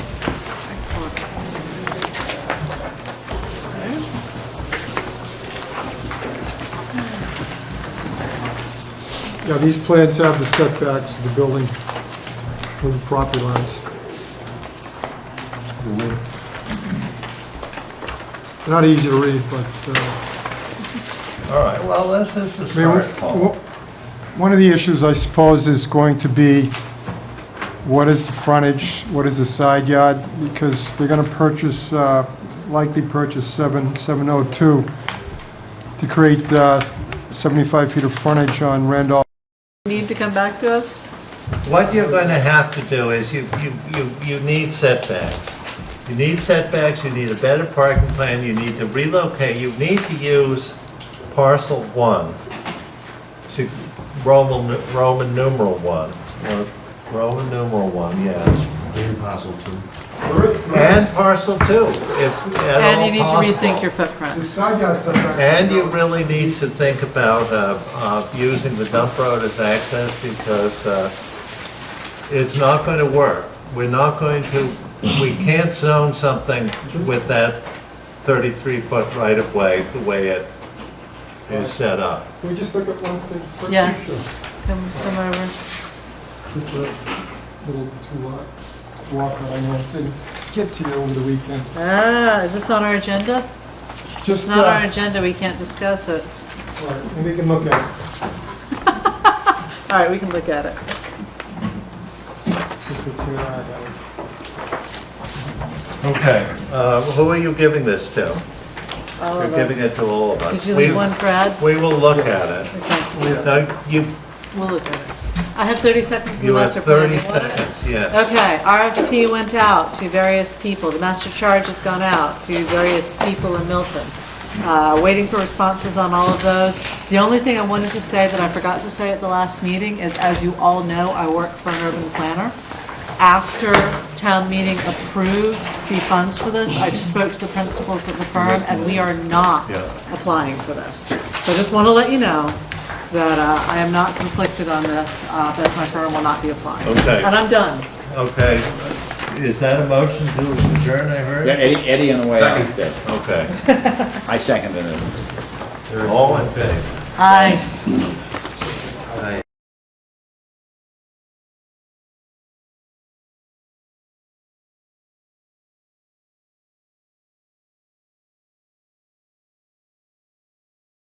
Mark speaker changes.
Speaker 1: Yeah, these plans have the setbacks of the building from the property lines. Not easy to read, but, uh,
Speaker 2: All right, well, this is the
Speaker 1: I mean,
Speaker 2: start, Paul.
Speaker 1: one of the issues, I suppose, is going to be what is the frontage, what is the side yard? Because they're gonna purchase, uh, likely purchase seven, seven oh two to create, uh, seventy-five feet of frontage on Randolph
Speaker 3: Need to come back to us?
Speaker 2: What you're gonna have to do is you, you, you, you need setbacks. You need setbacks, you need a better parking plan, you need to relocate, you need to use parcel one. See, Roman, nu- Roman numeral one, or Roman numeral one, yeah.
Speaker 4: In parcel two.
Speaker 2: And parcel two, if at all
Speaker 3: And you need to rethink
Speaker 2: possible.
Speaker 3: your
Speaker 1: The
Speaker 3: footprint.
Speaker 1: side yard setback.
Speaker 2: And you really need to think about uh, uh, using the dump road as access because uh, it's not going to work. We're not going to, we can't zone something with that 33-foot right-of-way the way it is set up.
Speaker 1: Can we just look at one thing? First
Speaker 3: Yes.
Speaker 1: picture,
Speaker 3: Come, come over.
Speaker 1: Just a little two lot walk that I want to get to you over the weekend.
Speaker 3: Ah, is this on our agenda? It's
Speaker 1: Just,
Speaker 3: not our
Speaker 1: uh,
Speaker 3: agenda, we can't discuss it.
Speaker 1: all right, and we can look at
Speaker 3: All right, we can look at it.
Speaker 1: it, since it's here and I have it.
Speaker 2: Okay. Uh, Who are you giving this to?
Speaker 3: All
Speaker 2: You're
Speaker 3: of
Speaker 2: giving
Speaker 3: us.
Speaker 2: it to all of us.
Speaker 3: Did you
Speaker 2: We-
Speaker 3: leave one for Ed?
Speaker 2: We will look at it.
Speaker 3: Okay,
Speaker 2: Now, you,
Speaker 3: we'll look at it. I have 30 seconds in the
Speaker 2: you have
Speaker 3: master
Speaker 2: 30
Speaker 3: planning. What?
Speaker 2: seconds, yes.
Speaker 3: Okay, RFP went out to various people, the master charge has gone out to various people in Milton. Uh, Waiting for responses on all of those. The only thing I wanted to say that I forgot to say at the last meeting is, as you all know, I work for an urban planner. After town meeting approved the funds for this, I just spoke to the principals of the firm, and we are not
Speaker 2: Yeah.
Speaker 3: applying for this. So I just want to let you know that uh, I am not conflicted on this, uh, that my firm will not be applying.
Speaker 2: Okay.
Speaker 3: And I'm done.
Speaker 2: Okay. Is that a motion to adjourn, I heard?
Speaker 5: Yeah, Eddie, Eddie on the way out
Speaker 4: Second.
Speaker 5: said,
Speaker 2: Okay.
Speaker 5: I seconded it.
Speaker 2: All in favor?
Speaker 3: Aye.